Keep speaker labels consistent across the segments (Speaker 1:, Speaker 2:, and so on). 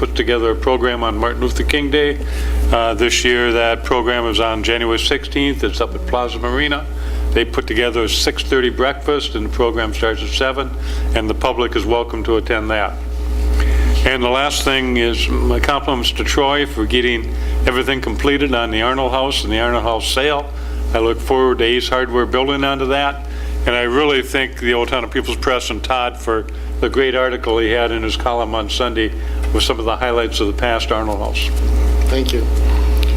Speaker 1: put together a program on Martin Luther King Day. Uh, This year, that program is on January 16th. It's up at Plaza Marina. They put together a 6:30 breakfast, and the program starts at 7, and the public is welcome to attend that. And the last thing is my compliments to Troy for getting everything completed on the Arnold House and the Arnold House sale. I look forward to Ace Hardware building onto that. And I really thank the Old Town of People's Press and Todd for the great article he had in his column on Sunday with some of the highlights of the past Arnold House.
Speaker 2: Thank you.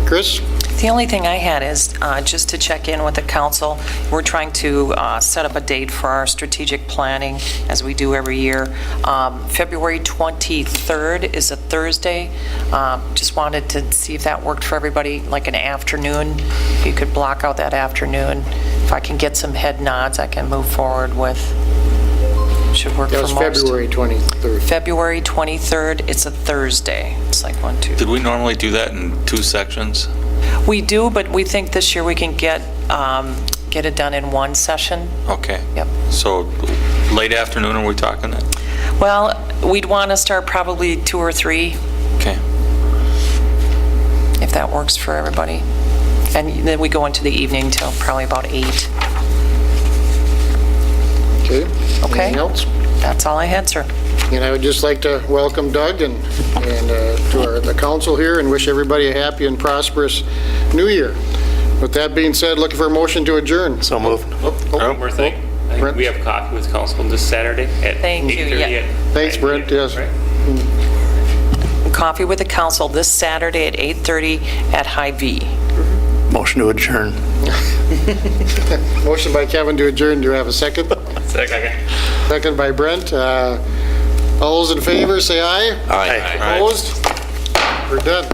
Speaker 2: Chris?
Speaker 3: The only thing I had is uh, just to check in with the council. We're trying to uh, set up a date for our strategic planning, as we do every year. Um, February 23rd is a Thursday. Um, Just wanted to see if that worked for everybody, like an afternoon. If you could block out that afternoon. If I can get some head nods, I can move forward with, should work for
Speaker 2: That was
Speaker 3: most.
Speaker 2: February 23rd.
Speaker 3: February 23rd, it's a Thursday. It's like one, two,
Speaker 4: Did we normally do that in two sections?
Speaker 3: We do, but we think this year we can get, um, get it done in one session.
Speaker 4: Okay.
Speaker 3: Yep.
Speaker 4: So late afternoon, are we talking then?
Speaker 3: Well, we'd want to start probably two or three,
Speaker 4: Okay.
Speaker 3: if that works for everybody. And then we go into the evening till probably about eight.
Speaker 2: Okay.
Speaker 3: Okay.
Speaker 2: Anything else?
Speaker 3: That's all I had, sir.
Speaker 2: And I would just like to welcome Doug and, and uh, to our, the council here and wish everybody a happy and prosperous new year. With that being said, looking for a motion to adjourn.
Speaker 5: So moved.
Speaker 2: Oh, oh,
Speaker 4: Oh,
Speaker 6: One more thing. I think we have coffee with council this Saturday at
Speaker 3: Thank you,
Speaker 6: 8:30
Speaker 3: yeah.
Speaker 6: at-
Speaker 2: Thanks, Brent, yes.
Speaker 6: Right.
Speaker 3: Coffee with the council this Saturday at 8:30 at High V.
Speaker 5: Motion to adjourn.
Speaker 2: Motion by Kevin to adjourn. Do you have a second?
Speaker 6: Second.
Speaker 2: Second by Brent. Uh, All those in favor, say aye.
Speaker 4: Aye.
Speaker 2: Opposed? We're done.